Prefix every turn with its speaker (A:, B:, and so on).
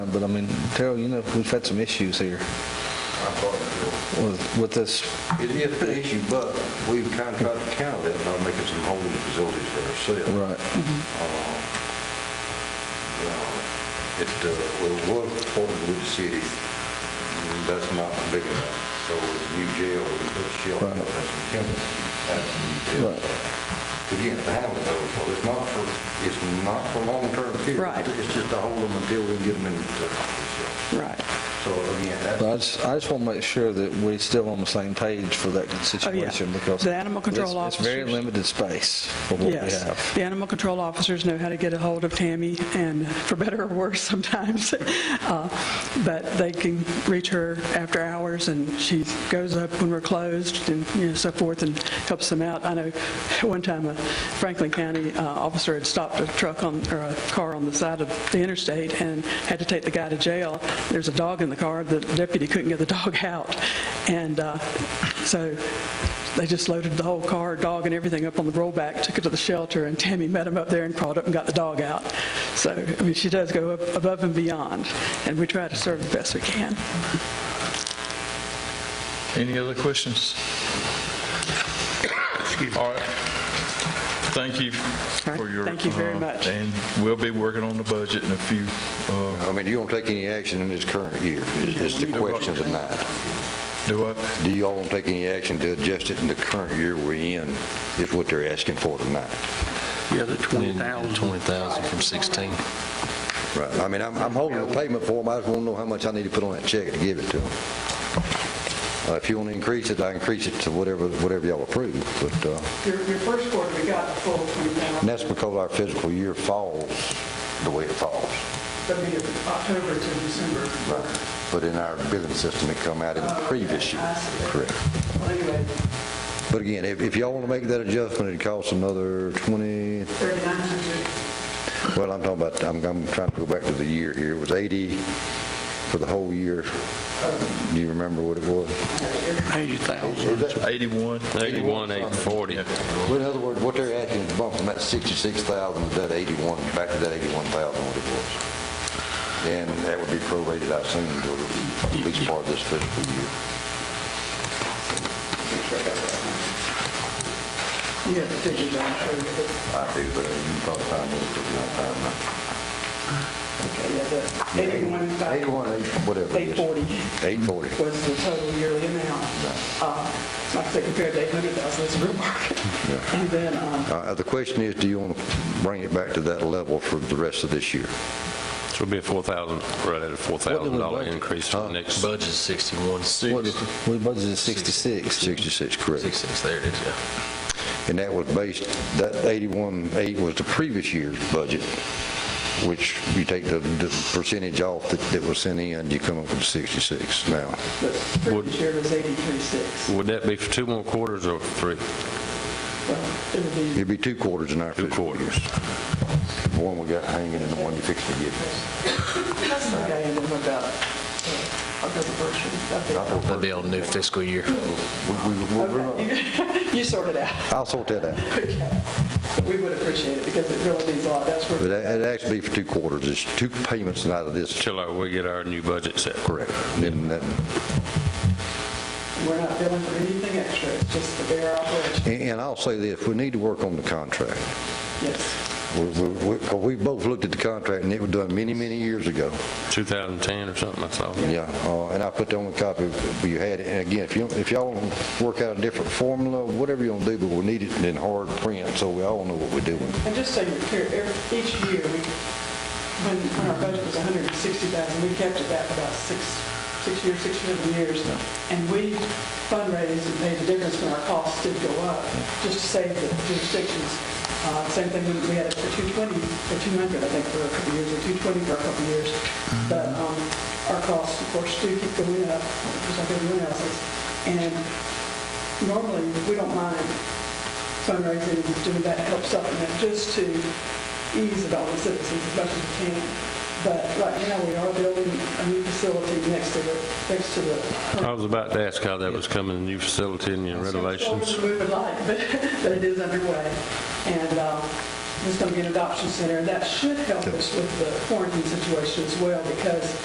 A: But I mean, Terrell, you know, we've had some issues here with, with this.
B: It is an issue, but we've kind of tried to counter that by making some holding facilities for ourselves. It, uh, well, it was reported with the city, and that's not big enough. So with the new jail, we put a shelter,
A: Right.
B: that's a chemical, that's a new jail.
A: Right.
B: Again, the hamlet though, so it's not for, it's not for long-term care.
C: Right.
B: It's just to hold them until we get them into the shelter.
C: Right.
B: So again, that's.
A: But I just, I just want to make sure that we're still on the same page for that situation because.
C: Oh, The animal control
A: it's- It's very
C: officers.
A: limited space for what we
C: Yes.
A: have.
C: The animal control officers know how to get a hold of Tammy, and for better or worse sometimes, Uh, but they can reach her after hours, and she goes up when we're closed and, you know, so forth, and helps them out. I know one time a Franklin County uh, officer had stopped a truck on, or a car on the side of the interstate and had to take the guy to jail. There's a dog in the car. The deputy couldn't get the dog out. And uh, so they just loaded the whole car, dog and everything up on the rollback, took it to the shelter, and Tammy met him up there and crawled up and got the dog out. So, I mean, she does go up- above and beyond, and we try to serve the best we can.
D: Any other questions? All right. Thank you for your.
C: Thank you very
D: uh,
C: much.
D: And we'll be working on the budget in a few, uh,
B: I mean, you don't take any action in this current year, is the question tonight.
D: do I,
B: Do y'all want to take any action to adjust it in the current year we're in, is what they're asking for tonight?
E: Yeah, the 20,000.
F: 20,000 from 16.
B: Right. I mean, I'm, I'm holding the payment for them, I just want to know how much I need to put on that check to give it to them. Uh, If you want to increase it, I increase it to whatever, whatever y'all approve, but, uh,
C: Your first quarter, we got full
B: and that's because our fiscal year falls the way it falls.
C: October to December.
B: But in our billing system, it come out in the previous year. Correct.
C: Anyway,
B: But again, if, if y'all want to make that adjustment, it costs another 20,
C: 3,900.
B: Well, I'm talking about, I'm, I'm trying to go back to the year here. It was 80 for the whole year. Do you remember what it was?
E: 80,000.
D: 81?
F: 81, 840.
B: Well, in other words, what they're asking is bump from that 66,000 to that 81, back to that 81,000 what it was. And that would be prorated, I assume, to at least part of this fiscal year.
C: Yeah, the figures I'm sure. but-
B: I do, but you probably find it, but
C: Okay, yeah, the
B: not
C: 81,
B: time. 81, eight- whatever it is.
C: 840
B: 840.
C: was the total yearly amount. Uh, Like I said, compared to 800,000, it's real market. And then, um,
B: Uh, The question is, do you want to bring it back to that level for the rest of this year?
F: Which would be a 4,000, right at a $4,000
A: budget?
F: increase for the next.
G: Budget 61,
A: What is- We budgeted 66.
B: 66, correct.
G: 66, there it is, yeah.
B: And that was based, that 81.8 was the previous year's budget, which you take the the percentage off that that was sent in, you come up with 66 now.
C: the previous year was 83.6.
F: Would that be for two more quarters or three?
C: Well, it would be,
B: It'd be two quarters in our
F: Two
B: fiscal years. The One we got hanging and the one you fixed to get.
C: okay, and then what about, uh, I'll go to first one. Okay.
G: That'd be on new fiscal year.
B: We- we- we'll- we'll-
C: You sort it out.
B: I'll sort that out.
C: We would appreciate it because it really means a lot. That's
B: But
C: where,
B: that- it'd actually be for two quarters, it's two payments out of this.
F: Till our- we get our new budget set?
B: Correct. Then that-
C: we're not billing for anything extra. It's just the bare operation.
B: And and I'll say this, we need to work on the contract.
C: Yes.
B: We- we- we- 'cause we both looked at the contract, and it was done many, many years ago.
F: 2010 or something, I saw.
B: Yeah, uh, and I put the only copy you had, it. and again, if you, if y'all want to work out a different formula, whatever you want to do, but we need it in hard print, so we all know what we're doing.
C: And just so you're clear, every- each year, we, when when our budget was 160,000, we kept it that for about six, six years, six or seven years. And we fundraised and made a difference when our costs did go up, just to save the jurisdictions. Uh, Same thing when we had it for 220, for 200, I think, for a couple of years, or 220 for a couple of years. But um, our costs, of course, do keep going up, just like everyone else's. And normally, we don't mind fundraising and doing that help supplement just to ease it on the citizens as much as we can. But right now, we are building a new facility next to the, next to the.
F: I was about to ask how that was coming, the new facility and your renovations.
C: We would like, but, but it is underway. And, um, there's going to be an adoption center. That should help us with the quarantine situation as well, because